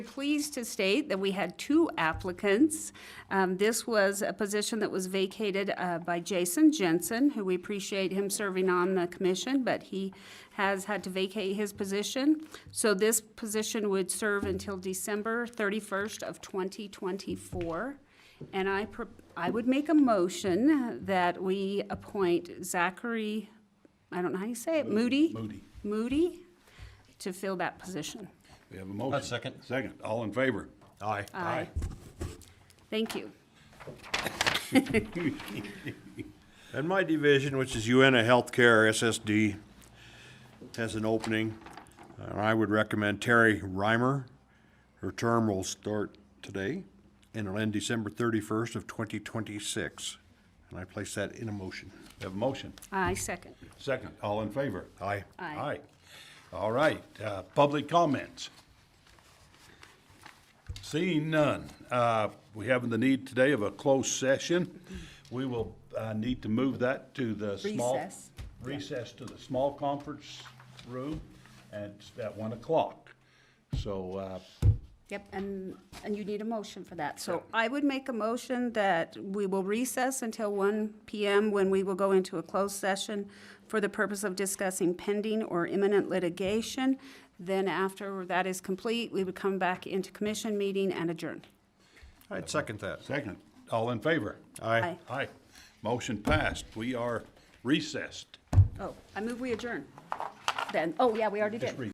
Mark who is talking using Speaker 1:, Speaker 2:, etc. Speaker 1: Pleased to state that we had two applicants. Um, This was a position that was vacated uh, by Jason Jensen, who we appreciate him serving on the commission, but he has had to vacate his position. So this position would serve until December 31st of 2024. And I, pro- I would make a motion that we appoint Zachary, I don't know how you say it, Moody?
Speaker 2: Moody.
Speaker 1: Moody, to fill that position.
Speaker 2: We have a motion.
Speaker 3: A second.
Speaker 2: Second. All in favor?
Speaker 3: Aye.
Speaker 1: Aye. Thank you.
Speaker 3: And my division, which is UNA Healthcare, SSD, has an opening. And I would recommend Terry Reimer. Her term will start today and it'll end December thirty-first of twenty twenty-six. And I place that in a motion.
Speaker 2: We have a motion.
Speaker 1: I second.
Speaker 2: Second. All in favor?
Speaker 3: Aye.
Speaker 1: Aye.
Speaker 2: All right, uh, public comments. Seeing none, uh, we have the need today of a closed session. We will, uh, need to move that to the small.
Speaker 1: Recess.
Speaker 2: Recess to the small conference room at, at one o'clock. So, uh,
Speaker 1: Yep, and, and you need a motion for that. So I would make a motion that we will recess until 1 PM when we will go into a closed session for the purpose of discussing pending or imminent litigation. Then after that is complete, we would come back into commission meeting and adjourn.
Speaker 3: I'd second that.
Speaker 2: second, all in favor?
Speaker 1: Aye.
Speaker 2: Aye. Motion passed. We are recessed.
Speaker 1: Oh, I move we adjourn. Then, oh, yeah, we already did.
Speaker 2: Just re-